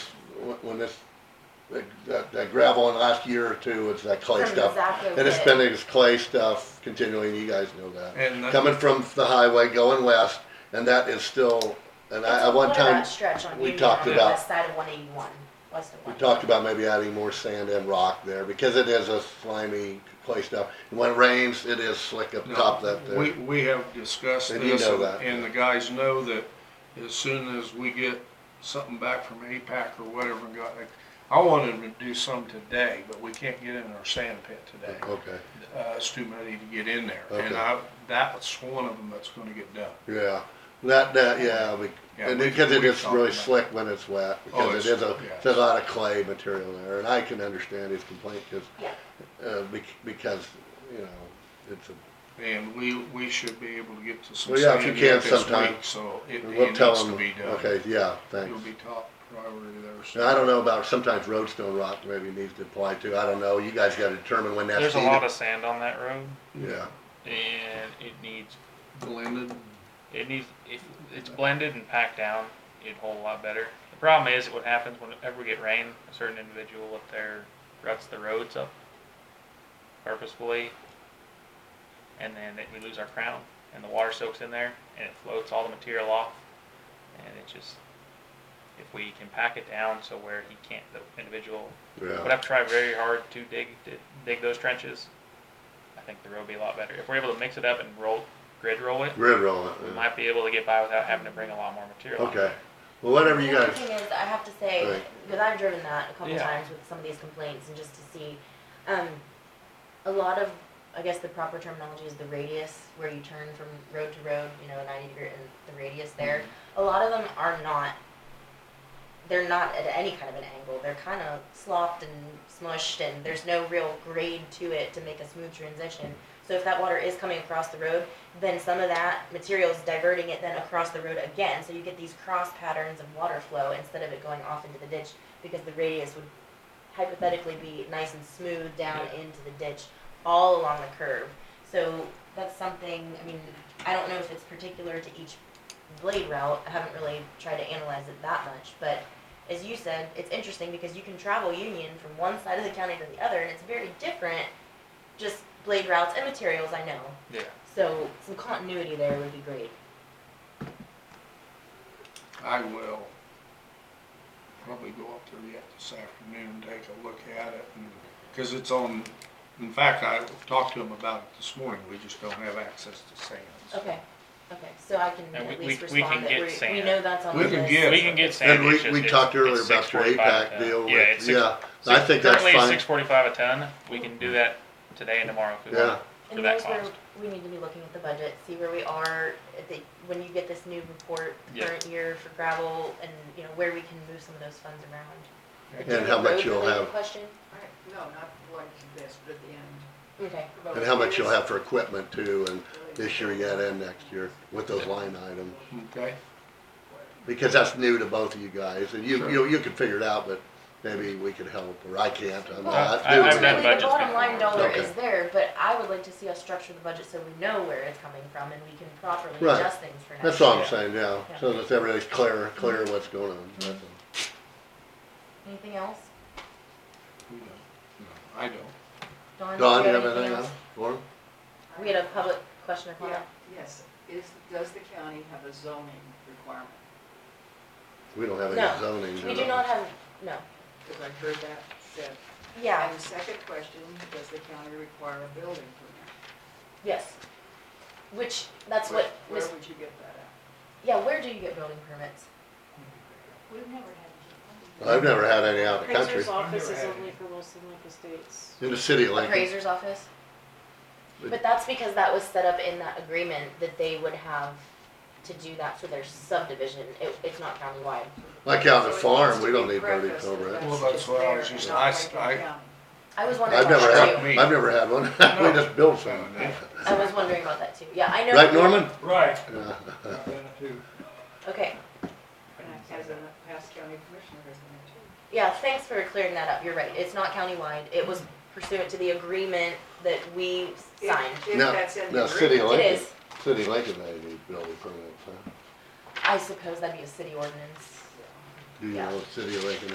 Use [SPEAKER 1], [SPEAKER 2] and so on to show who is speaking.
[SPEAKER 1] when this, that, that gravel in the last year or two, it's that clay
[SPEAKER 2] From
[SPEAKER 1] stuff.
[SPEAKER 2] exactly
[SPEAKER 1] And it's
[SPEAKER 2] what-
[SPEAKER 1] been this clay stuff continually, and you guys know that.
[SPEAKER 3] And that-
[SPEAKER 1] Coming from the highway, going west, and that is still, and I, at one
[SPEAKER 2] What about
[SPEAKER 1] time,
[SPEAKER 2] stretch on
[SPEAKER 1] we
[SPEAKER 2] Union
[SPEAKER 1] talked
[SPEAKER 2] on the
[SPEAKER 1] about-
[SPEAKER 2] west side of one eighty-one, west of
[SPEAKER 1] we
[SPEAKER 2] one.
[SPEAKER 1] talked about maybe adding more sand and rock there, because it is a slimy clay stuff. And When it rains, it is slick up
[SPEAKER 3] No,
[SPEAKER 1] top that there.
[SPEAKER 3] We, we have discussed
[SPEAKER 1] And you
[SPEAKER 3] this,
[SPEAKER 1] know
[SPEAKER 3] and-
[SPEAKER 1] that.
[SPEAKER 3] and the guys know that as soon as we get something back from APAC or whatever, and got, I wanted them to do some today, but we can't get in our sand pit today.
[SPEAKER 1] Okay,
[SPEAKER 3] Uh, it's too muddy to get in there,
[SPEAKER 1] Okay.
[SPEAKER 3] and I, that's one of them that's gonna get done.
[SPEAKER 1] yeah, that, that, yeah, we,
[SPEAKER 3] Yeah,
[SPEAKER 1] and
[SPEAKER 3] we-
[SPEAKER 1] because it
[SPEAKER 3] we
[SPEAKER 1] is
[SPEAKER 3] talked
[SPEAKER 1] really
[SPEAKER 3] about it.
[SPEAKER 1] slick when it's wet,
[SPEAKER 3] Oh,
[SPEAKER 1] because it is
[SPEAKER 3] it's-
[SPEAKER 1] a,
[SPEAKER 3] yeah.
[SPEAKER 1] it's a lot of clay material there, and I can understand his complaint, cause,
[SPEAKER 2] Yeah.
[SPEAKER 1] uh, bec- because, you know, it's a
[SPEAKER 3] And we, we should be able to get to some
[SPEAKER 1] Well, yeah, if
[SPEAKER 3] sand
[SPEAKER 1] you
[SPEAKER 3] yet
[SPEAKER 1] can
[SPEAKER 3] this
[SPEAKER 1] sometime.
[SPEAKER 3] week, so it,
[SPEAKER 1] We'll
[SPEAKER 3] it
[SPEAKER 1] tell
[SPEAKER 3] needs to
[SPEAKER 1] them,
[SPEAKER 3] be done.
[SPEAKER 1] okay, yeah,
[SPEAKER 3] It'll
[SPEAKER 1] thanks.
[SPEAKER 3] be top priority there. so-
[SPEAKER 1] And I don't know about, sometimes roadstone rock maybe needs to apply too, I don't know, you guys gotta determine when that's
[SPEAKER 4] There's a
[SPEAKER 1] needed.
[SPEAKER 4] lot of sand on that road,
[SPEAKER 1] Yeah,
[SPEAKER 4] and it needs
[SPEAKER 3] Blended,
[SPEAKER 4] it needs if it's blended and packed down, it'd hold a lot better. The problem is what happens whenever we get rain, a certain individual up there ruts the roads up purposefully, and then it, we lose our crown, and the water soaks in there, and it floats all the material off, and it just if we can pack it down so where he can't the individual would
[SPEAKER 1] yeah,
[SPEAKER 4] have to try very hard to dig to dig those trenches. I think the road would be a lot better if we're able to mix it up and roll grid roll it.
[SPEAKER 1] grid roll it,
[SPEAKER 4] We
[SPEAKER 1] yeah.
[SPEAKER 4] might be able to get by without having to bring a lot more material.
[SPEAKER 1] okay, well, whatever you
[SPEAKER 2] The other
[SPEAKER 1] guys,
[SPEAKER 2] thing is, I have to say,
[SPEAKER 1] Right.
[SPEAKER 2] because I've driven that a couple
[SPEAKER 4] Yeah.
[SPEAKER 2] times with some of these complaints and just to see, um, a lot of, I guess the proper terminology is the radius where you turn from road to road, you know, ninety degree and the radius there.
[SPEAKER 1] Mm-hmm.
[SPEAKER 2] A lot of them are not, they're not at any kind of an angle. They're kind of slopped and smushed and there's no real grade to it to make a smooth transition. So if that water is coming across the road, then some of that material is diverting it then across the road again. So you get these cross patterns of water flow instead of it going off into the ditch because the radius would hypothetically be nice and smooth down into the ditch all along the curve. So that's something, I mean, I don't know if it's particular to each blade route. I haven't really tried to analyze it that much, but as you said, it's interesting because you can travel Union from one side of the county to the other and it's very different, just blade routes and materials, I know.
[SPEAKER 4] Yeah.
[SPEAKER 2] So some continuity there would be great.
[SPEAKER 3] I will probably go up there yet this afternoon and take a look at it, and, cause it's on, in fact, I talked to them about it this morning, we just don't have access to sands.
[SPEAKER 2] Okay, okay, so I can
[SPEAKER 4] And we-
[SPEAKER 2] at
[SPEAKER 4] we-
[SPEAKER 2] least
[SPEAKER 4] we
[SPEAKER 2] respond
[SPEAKER 4] can
[SPEAKER 2] that
[SPEAKER 4] get
[SPEAKER 2] we, we
[SPEAKER 4] sand.
[SPEAKER 2] know that's on the
[SPEAKER 3] We
[SPEAKER 2] list.
[SPEAKER 3] can get-
[SPEAKER 4] We can get sand.
[SPEAKER 1] and we,
[SPEAKER 4] it's just-
[SPEAKER 1] we
[SPEAKER 4] it's-
[SPEAKER 1] talked earlier
[SPEAKER 4] it's
[SPEAKER 1] about your
[SPEAKER 4] 645
[SPEAKER 1] APAC
[SPEAKER 4] a ton.
[SPEAKER 1] deal
[SPEAKER 4] Yeah, it's
[SPEAKER 1] with,
[SPEAKER 4] six-
[SPEAKER 1] yeah, I
[SPEAKER 4] six-
[SPEAKER 1] think that's
[SPEAKER 4] Currently,
[SPEAKER 1] fine.
[SPEAKER 4] it's six forty-five a ton. We can do that today and tomorrow if we
[SPEAKER 1] Yeah.
[SPEAKER 4] want. for
[SPEAKER 2] And
[SPEAKER 4] that
[SPEAKER 2] there's where
[SPEAKER 4] cost.
[SPEAKER 2] we need to be looking at the budget, see where we are, at the, when you get this new report, the
[SPEAKER 4] Yeah.
[SPEAKER 2] current year for gravel, and, you know, where we can move some of those funds around.
[SPEAKER 1] and how much you'll
[SPEAKER 2] Road-related
[SPEAKER 1] have,
[SPEAKER 2] Question,
[SPEAKER 5] Alright, No, not like this, but at the end.
[SPEAKER 2] okay,
[SPEAKER 1] and how much you'll have for equipment too, and this year yet and next year, with those line items.
[SPEAKER 3] Okay,
[SPEAKER 1] Because that's new to both of you guys, and you,
[SPEAKER 3] Sure.
[SPEAKER 1] you, you can figure it out, but maybe we could help, or I can't, I'm
[SPEAKER 2] Well,
[SPEAKER 1] not,
[SPEAKER 4] I- I've
[SPEAKER 1] that's new to
[SPEAKER 4] done
[SPEAKER 1] me.
[SPEAKER 2] ultimately, the
[SPEAKER 4] budgets
[SPEAKER 2] bottom line
[SPEAKER 4] before.
[SPEAKER 2] dollar
[SPEAKER 1] Okay.
[SPEAKER 2] is there, but I would like to see us structure the budget so we know where it's coming from and we can properly
[SPEAKER 1] Right.
[SPEAKER 2] adjust things for next year.
[SPEAKER 1] That's all I'm saying, yeah, so that everybody's clear, clear what's going on, that's all.
[SPEAKER 2] Anything else?
[SPEAKER 3] we don't, no, I don't.
[SPEAKER 2] Dawn, do
[SPEAKER 1] Don,
[SPEAKER 2] you
[SPEAKER 1] you have
[SPEAKER 2] have
[SPEAKER 1] anything
[SPEAKER 2] else?
[SPEAKER 1] else for him?
[SPEAKER 2] We had a public question or comment.
[SPEAKER 5] Yeah, yes, is, does the county have a zoning requirement?
[SPEAKER 1] We don't have
[SPEAKER 2] No,
[SPEAKER 1] any zoning.
[SPEAKER 2] We do not have, no, Um,
[SPEAKER 5] Because I heard that said.
[SPEAKER 2] yeah,
[SPEAKER 5] And the second question, does the county require a building permit?
[SPEAKER 2] yes. Which, that's
[SPEAKER 5] Where-
[SPEAKER 2] what,
[SPEAKER 5] Where
[SPEAKER 2] Miss-
[SPEAKER 5] would you get that at?
[SPEAKER 2] yeah, where do you get building permits?
[SPEAKER 5] We've never had.
[SPEAKER 1] I've never had any out of the country,
[SPEAKER 6] Appraiser's office is only for Wilson Lake Estates.
[SPEAKER 1] in the city of Lincoln,
[SPEAKER 2] Appraiser's office?
[SPEAKER 1] But-
[SPEAKER 2] But that's because that was set up in that agreement that they would have to do that for their subdivision. It, it's not countywide.
[SPEAKER 1] like out on the farm, we don't need building permit.
[SPEAKER 3] Well, that's what I was just- I s- I-
[SPEAKER 2] I was wondering
[SPEAKER 1] I've
[SPEAKER 2] about
[SPEAKER 1] never
[SPEAKER 2] that
[SPEAKER 1] had,
[SPEAKER 2] too.
[SPEAKER 3] Me.
[SPEAKER 1] I've never had one, we just built some,
[SPEAKER 2] I was wondering about that too. Yeah, I know.
[SPEAKER 1] right, Norman?
[SPEAKER 3] Right.
[SPEAKER 1] Yeah.
[SPEAKER 2] Okay,
[SPEAKER 5] As a past county commissioner, isn't
[SPEAKER 2] yeah, thanks for clearing that up. You're right. It's not countywide. It was pursuant to the agreement that we
[SPEAKER 5] it too? If-
[SPEAKER 2] signed.
[SPEAKER 5] If
[SPEAKER 1] No,
[SPEAKER 5] that's in the
[SPEAKER 1] Now, city
[SPEAKER 5] agreement.
[SPEAKER 1] of
[SPEAKER 2] It
[SPEAKER 1] Lincoln,
[SPEAKER 2] is.
[SPEAKER 1] city of Lincoln, they need building permits, huh?
[SPEAKER 2] I suppose that'd be a city ordinance.
[SPEAKER 1] Do you
[SPEAKER 2] Yeah.
[SPEAKER 1] know, city of Lincoln